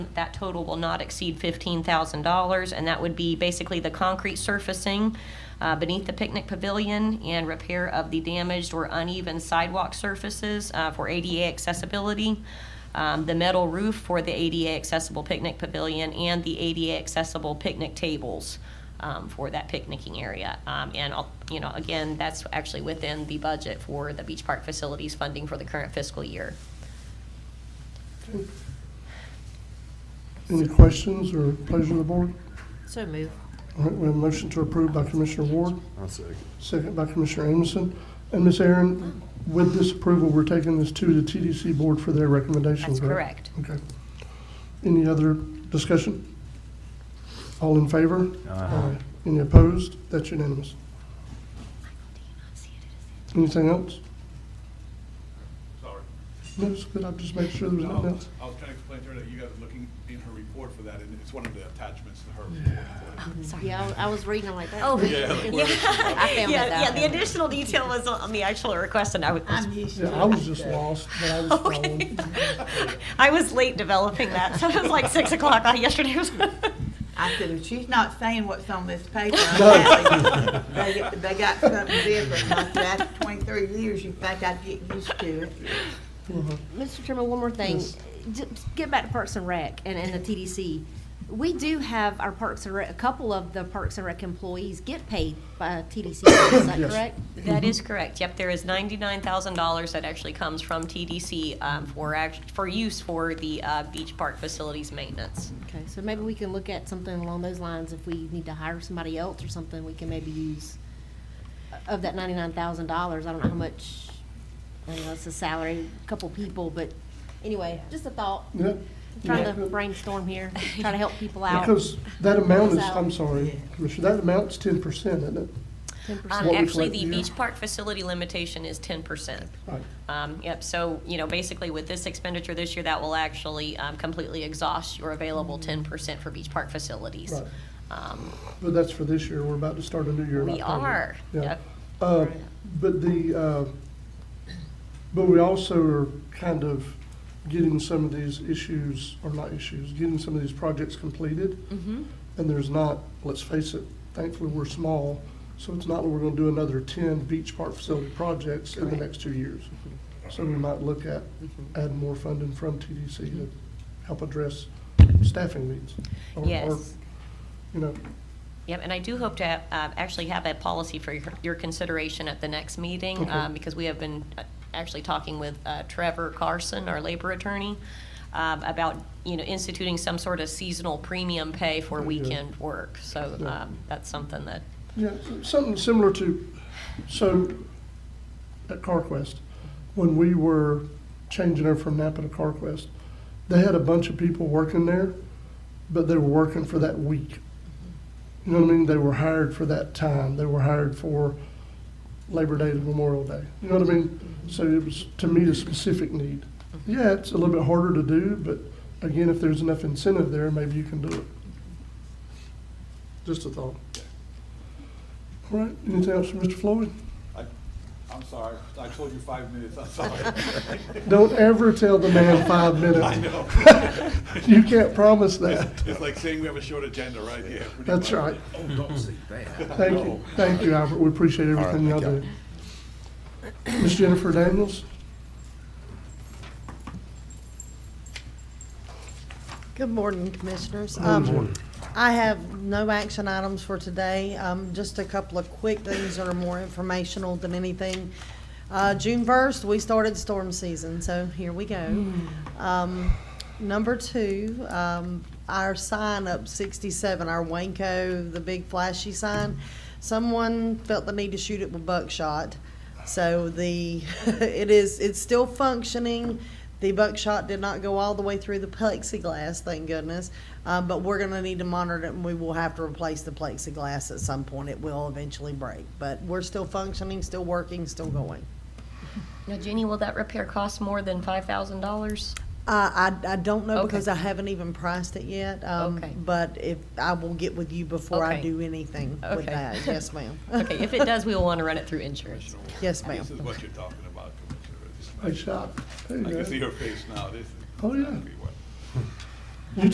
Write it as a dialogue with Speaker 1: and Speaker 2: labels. Speaker 1: That total will not exceed $15,000, and that would be basically the concrete surfacing uh, beneath the picnic pavilion and repair of the damaged or uneven sidewalk surfaces uh, for ADA accessibility, um, the metal roof for the ADA accessible picnic pavilion, and the ADA accessible picnic tables um, for that picnicking area. Um, And, I'll- you know, again, that's actually within the budget for the beach park facilities funding for the current fiscal year.
Speaker 2: Any questions or pleasure of the board?
Speaker 3: So move.
Speaker 2: All right, we have a motion to approve by Commissioner Ward,
Speaker 4: I'll second.
Speaker 2: second by Commissioner Amison. And Ms. Aaron, with this approval, we're taking this to the TDC board for their recommendation,
Speaker 1: That's
Speaker 2: correct?
Speaker 1: correct.
Speaker 2: Okay. Any other discussion? All in favor? Aye. Any opposed? That's unanimous. Anything else?
Speaker 5: Sorry.
Speaker 2: No, it's good, I'm just making sure there was
Speaker 5: No, I
Speaker 2: nothing
Speaker 5: was
Speaker 2: else.
Speaker 5: I was trying to explain to her that you guys are looking in her report for that, and it's one of the attachments to her report.
Speaker 3: Yeah, I I was reading them like that.
Speaker 1: Oh.
Speaker 5: Yeah, like, where is she?
Speaker 3: I found
Speaker 1: Yeah,
Speaker 3: that
Speaker 1: yeah,
Speaker 3: out.
Speaker 1: the additional detail was on the actual request, and I was,
Speaker 2: Yeah, I was just lost, but I was following.
Speaker 1: okay. I was late developing that, so it was like six o'clock on yesterday. was-
Speaker 6: I said, if she's not saying what's on this paper,
Speaker 2: No.
Speaker 6: I'm happy. They, they got something different, like that twenty-three years, you think I'd get used to it.
Speaker 3: Mr. Chairman, one more thing. Ju- Get back to Parks and Rec and, and the TDC. We do have our Parks and Rec, a couple of the Parks and Rec employees get paid by TDC, is that
Speaker 2: Yes.
Speaker 3: correct?
Speaker 1: That is correct. Yep, there is ninety-nine thousand dollars that actually comes from TDC um, for act, for use for the uh, beach park facilities maintenance.
Speaker 3: Okay, so maybe we can look at something along those lines. If we need to hire somebody else or something, we can maybe use uh, of that ninety-nine thousand dollars. I don't know how much, I don't know, it's a salary, a couple people, but anyway, just a thought.
Speaker 2: Yeah.
Speaker 3: Trying
Speaker 2: Yeah.
Speaker 3: to brainstorm here, trying to help people out.
Speaker 2: Because that amount is, I'm
Speaker 3: So-
Speaker 2: sorry, Commissioner, that amount's ten percent, isn't it?
Speaker 3: Ten
Speaker 1: Um,
Speaker 2: What
Speaker 3: percent.
Speaker 2: we
Speaker 1: actually,
Speaker 2: collect
Speaker 1: the
Speaker 2: here.
Speaker 1: beach park facility limitation is ten percent.
Speaker 2: Right.
Speaker 1: Um, Yep, so, you know, basically with this expenditure this year, that will actually um, completely exhaust your available ten percent for beach park facilities.
Speaker 2: Right.
Speaker 1: Um,
Speaker 2: But that's for this year, we're about to start a new year in
Speaker 1: We
Speaker 2: October.
Speaker 1: are,
Speaker 2: Yeah.
Speaker 1: yep.
Speaker 2: Uh, But the, uh, but we also are kind of getting some of these issues, or not issues, getting some of these projects completed. And there's not, let's face it, thankfully, we're small, so it's not that we're gonna do another ten beach park facility projects in the next two years. So we might look at adding more funding from TDC to help address staffing needs. or- or,
Speaker 1: Yes.
Speaker 2: You know,
Speaker 1: Yep, and I do hope to have, uh, actually have that policy for your- your consideration at the next meeting,
Speaker 2: Okay.
Speaker 1: um, because we have been uh, actually talking with uh, Trevor Carson, our labor attorney, um, about, you know, instituting some sort of seasonal premium pay for
Speaker 2: Yeah.
Speaker 1: weekend work. So
Speaker 2: Yeah.
Speaker 1: um, that's something that,
Speaker 2: Yeah, something similar to, so at CarQuest, when we were changing her from Napa to CarQuest, they had a bunch of people working there, but they were working for that week. You know what I mean? They were hired for that time. They were hired for Labor Day to Memorial Day. You know what I mean? So it was, to meet a specific need. Yeah, it's a little bit harder to do, but again, if there's enough incentive there, maybe you can do it. Just a thought. All right, anything else from Mr. Floyd?
Speaker 5: I- I'm sorry, I told you five minutes, I'm sorry.
Speaker 2: Don't ever tell the man five
Speaker 5: I
Speaker 2: minutes.
Speaker 5: know.
Speaker 2: You can't promise that.
Speaker 5: It's like saying we have a short agenda, right? Yeah. pretty
Speaker 2: That's
Speaker 5: much.
Speaker 2: right.
Speaker 4: Oh, don't say that.
Speaker 2: Thank you, thank you, Albert. We appreciate everything y'all
Speaker 4: All right,
Speaker 2: do.
Speaker 4: thank
Speaker 2: Ms. Jennifer Daniels?
Speaker 7: Good morning, Commissioners. Um, I have no action items for today, um, just a couple of quick things that are more informational than anything. Uh, June first, we started storm season, so here we go. Um, Number two, um, our sign up sixty-seven, our Wanko, the big flashy sign, someone felt the need to shoot it with buckshot. So the, it is, it's still functioning. The buckshot did not go all the way through the plexiglass, thank goodness. Uh, but we're gonna need to monitor it and we will have to replace the plexiglass at some point. It will eventually break. But we're still functioning, still working, still going.
Speaker 1: now Jenny, will that repair cost more than five thousand dollars?
Speaker 7: Uh, I, I don't know
Speaker 1: Okay.
Speaker 7: because I haven't even priced it yet. Um,
Speaker 1: Okay.
Speaker 7: But if, I will get with you before I
Speaker 1: Okay.
Speaker 7: do anything
Speaker 1: Okay.
Speaker 7: with that. Yes, ma'am.
Speaker 1: Okay, if it does, we will want to run it through insurance.
Speaker 5: Commissioner,
Speaker 7: Yes, ma'am.
Speaker 5: This is what you're talking about, Commissioner. This is-
Speaker 2: Hey, shot. There you
Speaker 5: I
Speaker 2: go.
Speaker 5: can see her face now, this is.
Speaker 2: Oh, yeah.
Speaker 5: exactly what-